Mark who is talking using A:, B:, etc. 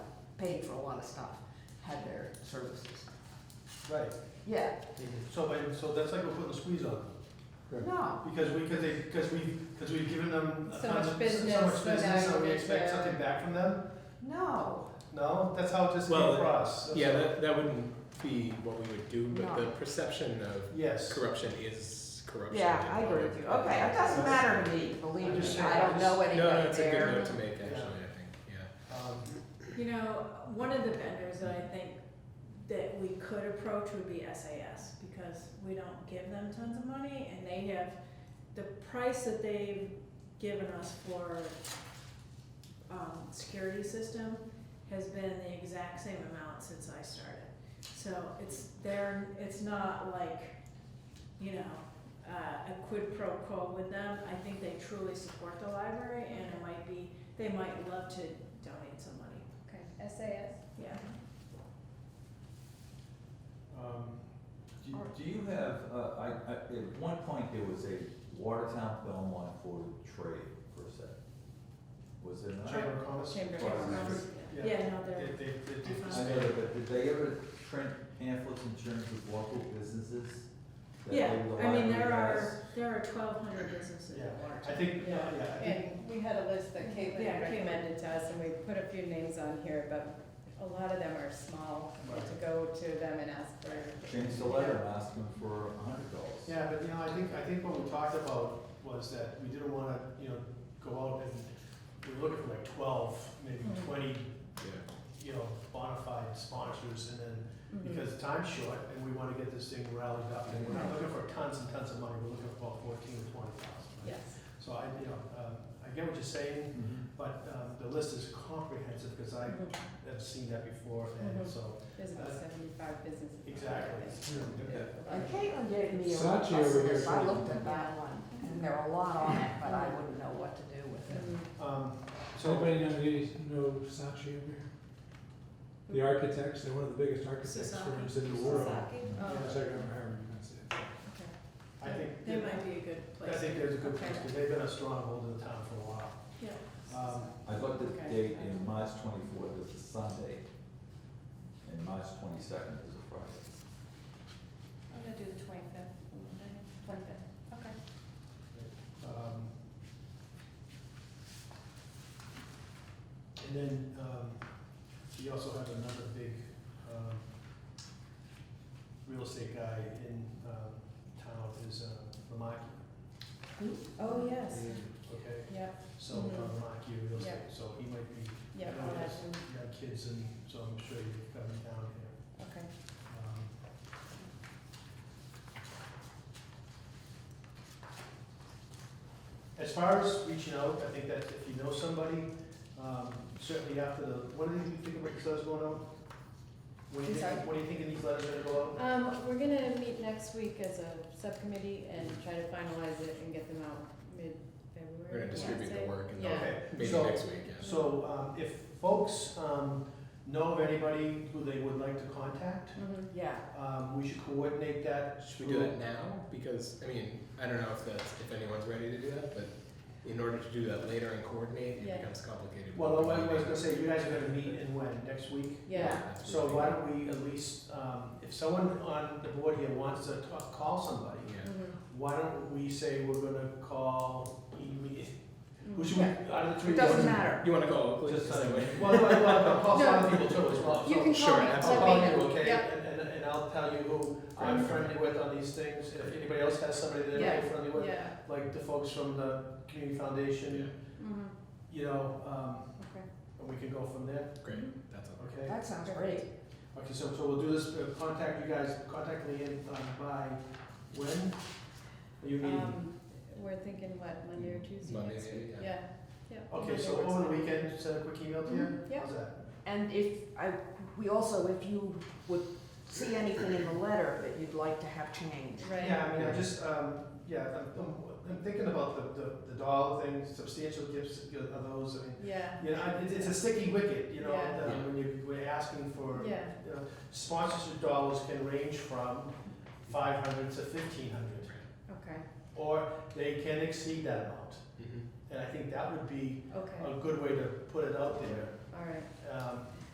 A: paid for a lot of stuff, had their services.
B: Right,
A: Yeah,
B: so, but- so that's like we're putting a squeeze on them.
A: no,
B: Because we, because they, because we, because we've given them.
C: So much
B: so much
C: business, so
B: business,
C: now
B: so we
C: you're
B: expect
C: there.
B: something back from them?
A: no,
B: No, that's how it just came
D: Well,
B: across. That's
D: Yeah,
B: all.
D: that, that wouldn't be what we would do, but the perception of
B: Yes.
D: corruption is corruption.
A: yeah, I agree with you, okay, it doesn't matter to me, believe
B: I'm just
A: me,
B: saying,
A: I don't know
D: No,
A: anything there.
D: no, it's a good note to make, actually, I
B: Yeah.
D: think, yeah.
B: Um,
C: You know, one of the vendors that I think that we could approach would be SAS, because we don't give them tons of money, and they have, the price that they've given us for, um, security system has been the exact same amount since I started. So it's, they're, it's not like, you know, uh, a quid pro quo with them, I think they truly support the library, and it might be, they might love to donate some money.
E: Okay, SAS.
C: Yeah.
B: um,
F: Do do you have, uh, I, I, at one point, there was a Watertown Belmont for trade, per se. Was there not?
B: Chamber of Commerce?
C: Chamber of
F: Well,
C: Commerce.
B: yeah.
C: Yeah, Uh-huh. no,
B: They,
C: they're,
B: they, they did this.
F: I know that, but did they ever print pamphlets in terms of local businesses? that
C: yeah,
F: they
C: I mean,
F: relied
C: there
F: on
C: are, there are twelve hundred businesses in
B: I
C: Watertown.
B: think, yeah, yeah, I think,
E: And we had a list that
C: Yeah,
E: Caitlin
C: Caitlin.
E: recommended to us, and we put a few names on here, but a lot of them are small. We had to go to them and ask
F: guys?
E: for.
F: Change the letter and ask them for a hundred dollars.
B: yeah, but you know, I think, I think what we talked about was that we didn't wanna, you know, go out and, we were looking for like twelve, maybe
E: Mm.
B: twenty,
D: Yeah.
B: you know, bona fide sponsors and then
E: Mhm.
B: because time's short and we wanna get this thing rallied up, and we're not looking for tons and tons of money, we're looking for about fourteen or twenty thousand.
E: Yes.
B: So I, you know, um, I get what you're saying,
F: Mhm.
B: but, um, the list is comprehensive, cause I
E: Mhm.
C: Mm-hmm.
B: have seen that before, and
E: Mhm.
B: so,
E: There's
G: Uh,
E: about seventy-five businesses. out there.
B: exactly.
A: And Caitlin gave me a
B: Saatchi
A: list,
B: over here
A: and I
B: too.
A: looked at that one, and there were a lot on it, but I wouldn't know what to do with it.
E: Mhm.
B: Um,
G: So
B: so,
G: anybody know, you know Saatchi over here? The architects, they're one of the biggest architects
C: Sasaki.
G: firms in the world.
E: Oh,
G: Yeah, Second, or however you pronounce it.
E: okay.
B: I think,
C: They might be a good
B: I
C: place.
B: think there's a good
E: Okay.
B: place, cause they've been a stronghold in the town for a while.
C: Yeah.
B: Um,
F: I looked at
E: Okay.
F: the date in March twenty-fourth, is a Sunday, and March twenty-second is a Friday.
E: I'm gonna do the twenty-fifth, twenty-fifth, okay.
B: Um, And then, um, we also have another big, um, real estate guy in, um, town is, uh, Ramaki,
E: Oh, yes,
B: okay?
E: yep,
B: So, uh,
E: Mhm.
B: Ramaki Real
E: Yeah.
B: Estate, so he might be, I
E: yep,
B: know
E: I'll
B: he's
E: add him.
B: got kids and, so I'm sure he's coming down here.
E: okay.
B: Um, Um, As far as reaching out, I think that if you know somebody, um, certainly after the, what do you think of Rick's letters going out? What do you
E: I'm sorry?
B: think, what do you think of these letters that are going out?
E: Um, we're gonna meet next week as a subcommittee and try to finalize it and get them out mid-February.
D: We're gonna distribute the
E: I'd say.
D: work and
E: Yeah.
D: then
B: Okay,
D: maybe
B: so-
D: next week, yeah.
B: So, um, if folks, um, know of anybody who they would like to contact,
E: Mhm.
A: Yeah,
B: um, we should coordinate that
D: Should we do
B: through-
D: that now? Because, I mean, I don't know if that's, if anyone's ready to do that, but in order to do that later and coordinate,
E: Yeah.
D: it becomes complicated.
B: Well, I was gonna say, you guys are gonna meet in when, next week?
E: Yeah,
D: That's
B: So
D: really-
B: why don't we at least, um, if someone on the board here wants to talk, call somebody,
D: Yeah,
E: mhm,
B: why don't we say we're gonna call, who
E: mhm.
B: should we, out of the three?
A: it doesn't matter.
D: you wanna go, Oakley?
B: Just,
D: Just
B: uh,
D: anyway.
B: well, well, well, I'll call some other people too as well,
E: You
B: so
E: can
D: sure,
E: call me,
B: I'll
E: let
D: absolutely.
B: call
E: me
B: you,
E: know.
B: okay,
E: Yep,
B: and, and, and I'll tell you who I'm
D: Right.
B: friendly with on these things, if anybody else has somebody that they're
E: Yeah.
B: friendly with,
E: yeah,
B: like the folks from the community
D: Yeah,
B: foundation,
E: mhm,
B: you know, um,
E: okay.
B: and we can go from there,
A: Mm-hmm.
D: great, that's all.
B: okay?
A: That sounds great.
B: Okay, so, so we'll do this, uh, contact you guys, contact Leanne um, by when? Are you meeting?
E: Um, we're thinking, what, Monday or Tuesday
D: Monday,
E: next week?
D: yeah.
E: Yeah, yeah.
B: Okay, so
E: Monday works
B: over the
E: for me.
B: weekend, send a quick email to you?
E: Mhm, yeah.
B: How's that?
A: And if, I, we also, if you would see anything in the letter that you'd like to have changed,
E: Right,
B: Yeah, I mean, I just, um, yeah, I'm- I'm, I'm thinking about the, the, the dollar thing, substantial gifts, you know, are those, I mean,
E: yeah,
B: you know, I- it's, it's a sticky wicket, you know,
E: Yeah.
B: that when you, we're asking for,
E: yeah,
B: you know, sponsorship dollars can range from five hundred to fifteen hundred,
E: okay,
B: or they can exceed that amount.
D: Mhm.
B: And I think that would be
E: okay,
B: a good way to put it out there.
E: all right,
B: Um,